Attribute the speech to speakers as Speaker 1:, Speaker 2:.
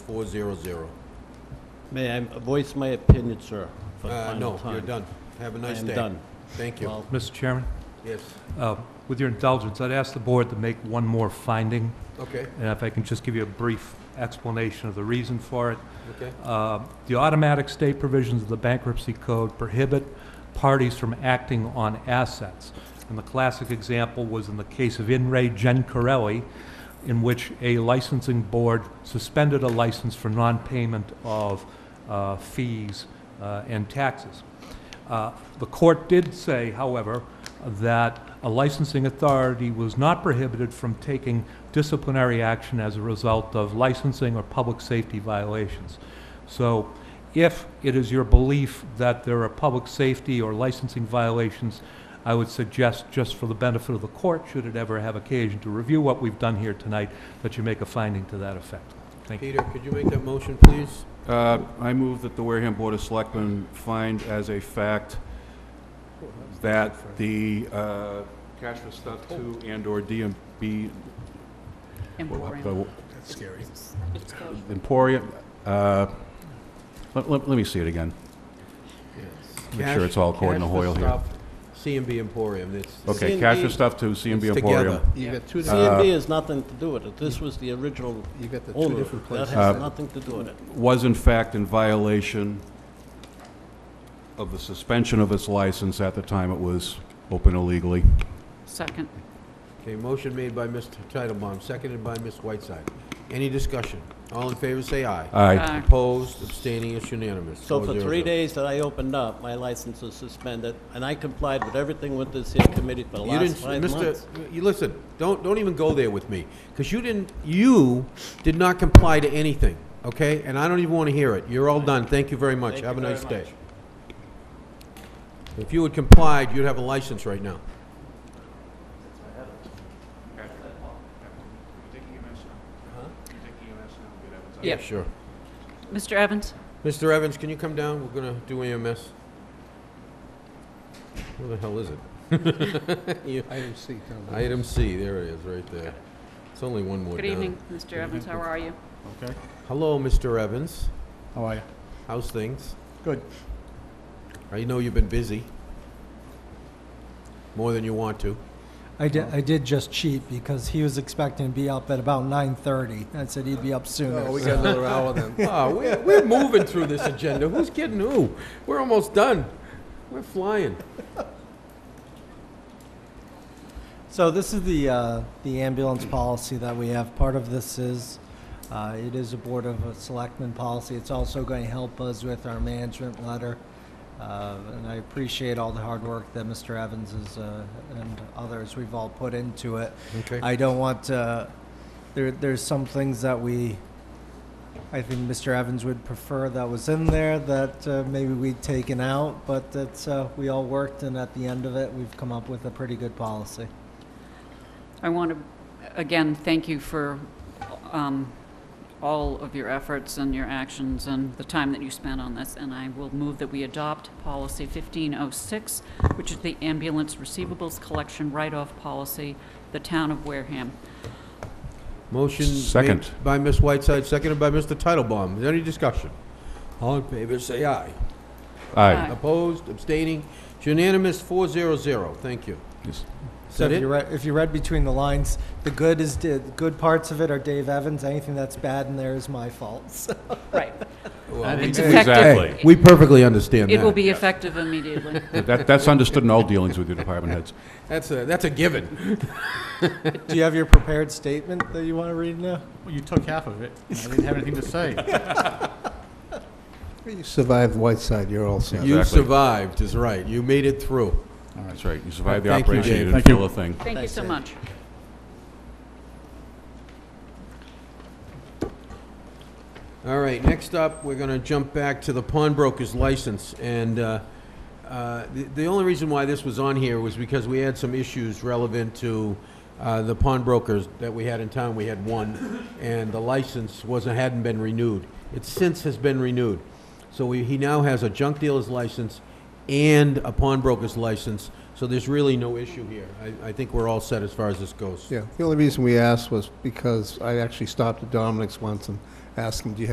Speaker 1: four zero zero.
Speaker 2: May I voice my opinion, sir? for the
Speaker 1: Uh,
Speaker 2: final
Speaker 1: no, you're
Speaker 2: time?
Speaker 1: done. Have a
Speaker 2: I
Speaker 1: nice
Speaker 2: am
Speaker 1: day.
Speaker 2: done.
Speaker 1: Thank you. Uh,
Speaker 2: Well,
Speaker 3: Mr. Chairman,
Speaker 1: Yes,
Speaker 3: uh, with your indulgence, I'd ask the board to make one more finding,
Speaker 1: okay,
Speaker 3: and if I can just give you a brief explanation of the reason for it.
Speaker 1: okay.
Speaker 3: Uh, The automatic stay provisions of the bankruptcy code prohibit parties from acting on assets. And the classic example was in the case of In re Gencarelli, in which a licensing board suspended a license for non-payment of uh, fees uh, and taxes. Uh, The court did say, however, that a licensing authority was not prohibited from taking disciplinary action as a result of licensing or public safety violations. So if it is your belief that there are public safety or licensing violations, I would suggest, just for the benefit of the court, should it ever have occasion to review what we've done here tonight, that you make a finding to that effect. Thank you.
Speaker 1: Peter, could you make that motion, please?
Speaker 4: Uh, I move that the Wareham Board of Selectmen find as a fact that the uh, cash for step two and/or DMB uh,
Speaker 5: Emporium.
Speaker 1: That's scary.
Speaker 5: It's called-
Speaker 4: Emporium, uh, let let- let me see it again. Make sure it's all according to Hoyle here. Oh,
Speaker 1: C and B Emporium, it's.
Speaker 4: Okay, cash for
Speaker 2: C&B.
Speaker 4: stuff two,
Speaker 1: it's
Speaker 4: CMB
Speaker 1: together.
Speaker 4: Emporium.
Speaker 6: You got two, di-
Speaker 2: CMB has nothing to do with it. This was the original
Speaker 6: you got the two
Speaker 2: owner.
Speaker 6: different
Speaker 2: That
Speaker 6: places.
Speaker 2: has nothing to do with it.
Speaker 4: was in fact in violation of the suspension of its license at the time it was open illegally.
Speaker 5: Second.
Speaker 1: Okay, motion made by Mr. Titlebaum, seconded by Ms. Whiteside. Any discussion? All in favor, say aye.
Speaker 4: Aye.
Speaker 5: Aye.
Speaker 1: Opposed, abstaining, it's unanimous.
Speaker 2: So for
Speaker 1: 4-0-0.
Speaker 2: three days that I opened up, my license was suspended, and I complied with everything with this here committee for the
Speaker 1: You
Speaker 2: last
Speaker 1: didn't,
Speaker 2: five
Speaker 1: Mr.,
Speaker 2: months.
Speaker 1: you listen, don't, don't even go there with me, because you didn't, you did not comply to anything, okay? And I don't even want to hear it. You're all done. Thank you very much.
Speaker 2: Thank
Speaker 1: Have a
Speaker 2: you very
Speaker 1: nice day.
Speaker 2: much.
Speaker 1: If you had complied, you'd have a license right now.
Speaker 5: Yeah.
Speaker 1: Sure.
Speaker 5: Mr. Evans?
Speaker 1: Mr. Evans, can you come down? We're gonna do EMS. Where the hell is it? You-
Speaker 6: Item C, down below.
Speaker 1: Item C, there it is, right there. It's only one more
Speaker 5: Good
Speaker 1: down.
Speaker 5: evening, Mr. Evans. How are you?
Speaker 6: Okay,
Speaker 1: Hello, Mr. Evans.
Speaker 6: how are you?
Speaker 1: How's things?
Speaker 6: Good.
Speaker 1: I know you've been busy. More than you want to.
Speaker 7: I did, I did just cheat because he was expecting to be up at about 9.30. I said he'd be up sooner.
Speaker 6: Oh, we got another hour then.
Speaker 1: Oh, we're, we're moving through this agenda. Who's kidding who? We're almost done. We're flying.
Speaker 7: So this is the, uh, the ambulance policy that we have. Part of this is, uh, it is a Board of Selectmen policy. It's also going to help us with our management letter. Uh, and I appreciate all the hard work that Mr. Evans is, uh, and others, we've all put into it.
Speaker 1: Okay.
Speaker 7: I don't want to, there, there's some things that we, I think Mr. Evans would prefer that was in there that uh, maybe we'd taken out, but that's, uh, we all worked and at the end of it, we've come up with a pretty good policy.
Speaker 5: I want to, again, thank you for um, all of your efforts and your actions and the time that you spent on this, and I will move that we adopt Policy 1506, which is the ambulance receivables collection write-off policy, the town of Wareham.
Speaker 1: Motion
Speaker 4: Second.
Speaker 1: made by Ms. Whiteside, seconded by Mr. Titlebaum. Is there any discussion? All in favor, say aye.
Speaker 5: Aye.
Speaker 1: Opposed, abstaining, it's unanimous, four zero zero. Thank you.
Speaker 4: Yes.
Speaker 1: Is
Speaker 7: So
Speaker 1: that
Speaker 7: if
Speaker 1: it?
Speaker 7: you read, if you read between the lines, the good is, the good parts of it are Dave Evans, anything that's bad in there is my fault, so.
Speaker 5: Right.
Speaker 1: Well,
Speaker 5: It's
Speaker 4: Exactly.
Speaker 5: effective-
Speaker 1: We perfectly understand that.
Speaker 5: It will be effective immediately.
Speaker 4: That, that's understood in all dealings with your department heads.
Speaker 1: That's a, that's a given.
Speaker 7: Do you have your prepared statement that you want to read now?
Speaker 8: Well, you took half of it. I didn't have anything to say.
Speaker 6: You survived Whiteside, you're all set.
Speaker 1: You
Speaker 4: Exactly.
Speaker 1: survived, is right. You made it through.
Speaker 4: That's right. You survived the
Speaker 1: Thank you,
Speaker 4: operation,
Speaker 1: Dave.
Speaker 4: you didn't
Speaker 8: Thank you.
Speaker 4: feel a thing.
Speaker 5: Thank you so much.
Speaker 1: All right, next up, we're going to jump back to the pawnbroker's license. And uh, uh, the the only reason why this was on here was because we had some issues relevant to uh, the pawnbrokers that we had in town. We had one, and the license wasn't, hadn't been renewed. It since has been renewed. So we- he now has a junk dealer's license and a pawnbroker's license, so there's really no issue here. I- I think we're all set as far as this goes.
Speaker 6: Yeah, the only reason we asked was because I actually stopped at Dominic's once and asked him, do you have